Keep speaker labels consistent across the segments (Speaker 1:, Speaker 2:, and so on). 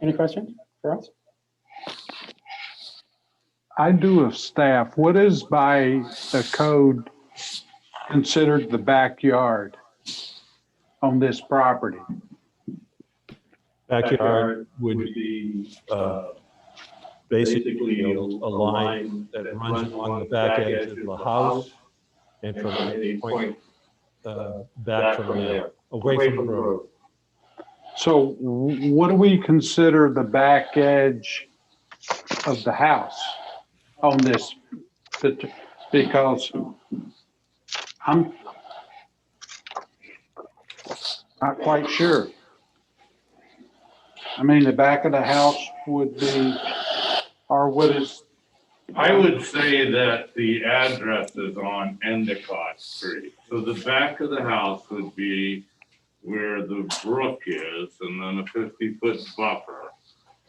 Speaker 1: Any questions for us?
Speaker 2: I do of staff, what is by the code considered the backyard on this property?
Speaker 3: Backyard
Speaker 4: would
Speaker 3: would
Speaker 4: be
Speaker 3: uh,
Speaker 4: basically a a
Speaker 3: line
Speaker 4: line that runs along the back edge of the house
Speaker 3: and
Speaker 4: and
Speaker 3: from any point
Speaker 4: uh,
Speaker 3: back
Speaker 4: back
Speaker 3: from there,
Speaker 4: away from the road.
Speaker 2: So wh- what do we consider the back edge of the house on this? That- Because I'm not quite sure. I mean, the back of the house would be, or what is,
Speaker 5: I would say that the address is on Endicott Street. So the back of the house would be where the brook is and then a fifty-foot buffer.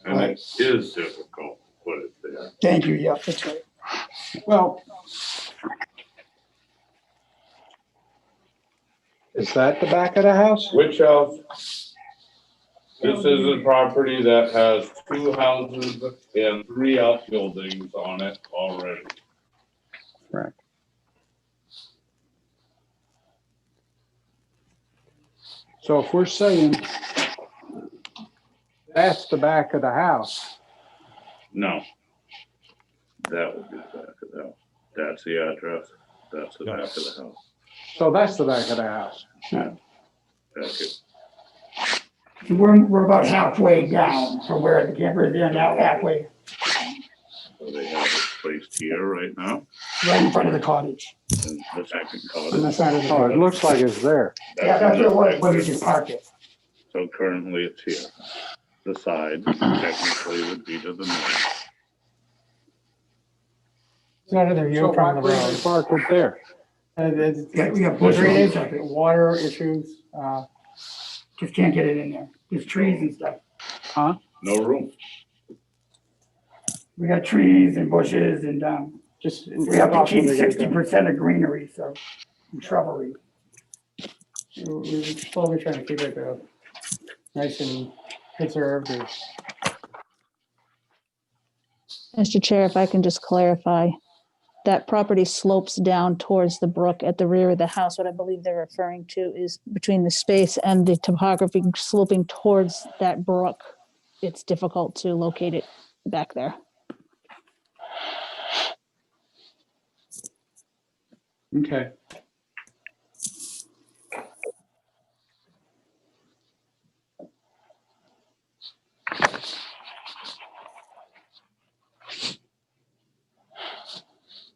Speaker 5: And it is difficult to put it there.
Speaker 6: Thank you, yeah, that's right.
Speaker 2: well, is that the back of the house?
Speaker 5: Which house? This is a property that has two houses and three outbuildings on it already.
Speaker 2: So if we're saying that's the back of the house,
Speaker 5: No. That would be the back of the house. That's the address. That's the back of the house.
Speaker 2: so that's the back of the house.
Speaker 5: That's it.
Speaker 6: We're, we're about halfway down from where the camper is, in, now halfway,
Speaker 5: So they have it placed here right now.
Speaker 6: right in front of the cottage,
Speaker 5: And the second
Speaker 6: on the
Speaker 5: cottage.
Speaker 6: side of the
Speaker 2: Oh, it
Speaker 6: cottage.
Speaker 2: looks like it's there.
Speaker 6: Yeah, that's where it was, where we just parked it.
Speaker 5: So currently it's here. The side technically would be to the north.
Speaker 1: It's not another
Speaker 2: So
Speaker 1: view
Speaker 2: why
Speaker 1: from the
Speaker 2: couldn't we
Speaker 1: road.
Speaker 2: park it there?
Speaker 1: Uh, there's-
Speaker 6: Yeah, we got bushes and
Speaker 1: Drainage,
Speaker 6: stuff, it
Speaker 1: water issues, uh,
Speaker 6: just can't get it in there, there's trees and stuff.
Speaker 5: No room.
Speaker 6: We got trees and bushes and, um,
Speaker 1: just.
Speaker 6: we have to keep sixty percent of greenery, so, and shrubbery.
Speaker 1: We're we're slowly trying to keep it uh, nice and preserved or
Speaker 7: Mr. Chair, if I can just clarify, that property slopes down towards the brook at the rear of the house. What I believe they're referring to is between the space and the topography sloping towards that brook. It's difficult to locate it back there.
Speaker 2: Okay.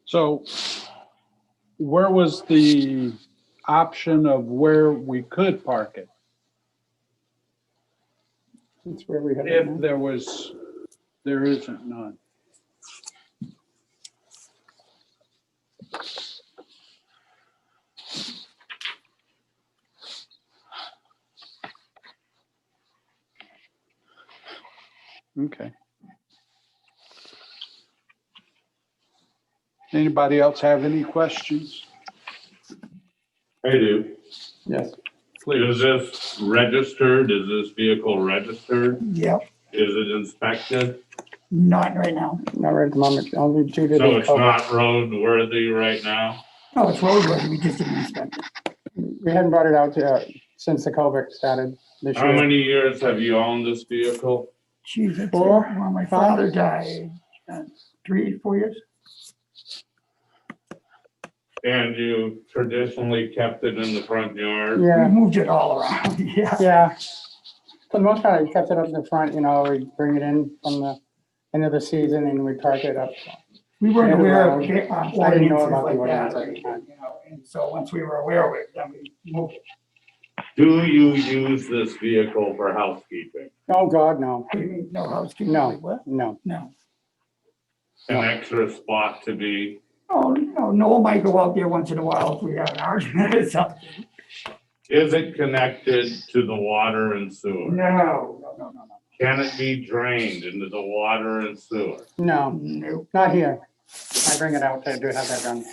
Speaker 2: So where was the option of where we could park it?
Speaker 1: that's where we had. it
Speaker 2: If there was, there isn't none. Okay. Anybody else have any questions?
Speaker 5: I do.
Speaker 1: Yes.
Speaker 5: Is this registered? Is this vehicle registered?
Speaker 6: Yep,
Speaker 5: Is it inspected?
Speaker 6: not right now,
Speaker 1: Not right at the moment, only due to.
Speaker 5: So
Speaker 1: the
Speaker 5: it's not roadworthy right now?
Speaker 6: oh, it's roadway, we just didn't inspect it.
Speaker 1: We hadn't brought it out uh, since the COVID started this
Speaker 5: How
Speaker 1: year.
Speaker 5: many years have you owned this vehicle?
Speaker 6: Jeez, that's,
Speaker 1: Four,
Speaker 6: when my
Speaker 1: five?
Speaker 6: father died, uh, three, four years,
Speaker 5: And you traditionally kept it in the front yard?
Speaker 6: we
Speaker 1: Yeah,
Speaker 6: moved it all around, yeah.
Speaker 1: yeah. For the most part, I kept it up in the front, you know, we bring it in from the end of the season and we park it up.
Speaker 6: We weren't
Speaker 1: Yeah,
Speaker 6: aware of
Speaker 1: well,
Speaker 6: ca- uh,
Speaker 1: I didn't know about
Speaker 6: ordinances
Speaker 1: the
Speaker 6: like that, or
Speaker 1: ordinance.
Speaker 6: anything, you know, and so once we were aware of it, then we moved. it.
Speaker 5: Do you use this vehicle for housekeeping?
Speaker 1: Oh, God, no,
Speaker 6: What do you mean, No housekeeping?
Speaker 1: No.
Speaker 6: Like what?
Speaker 1: no.
Speaker 6: No.
Speaker 5: An extra spot to be
Speaker 6: Oh, no, Noel might go out there once in a while if we have an argument or something.
Speaker 5: Is it connected to the water and
Speaker 6: No,
Speaker 5: sewer?
Speaker 6: no, no, no,
Speaker 5: Can it be drained into the water and sewer?
Speaker 1: No,
Speaker 6: no.
Speaker 1: not here. I bring it out, I do have that done.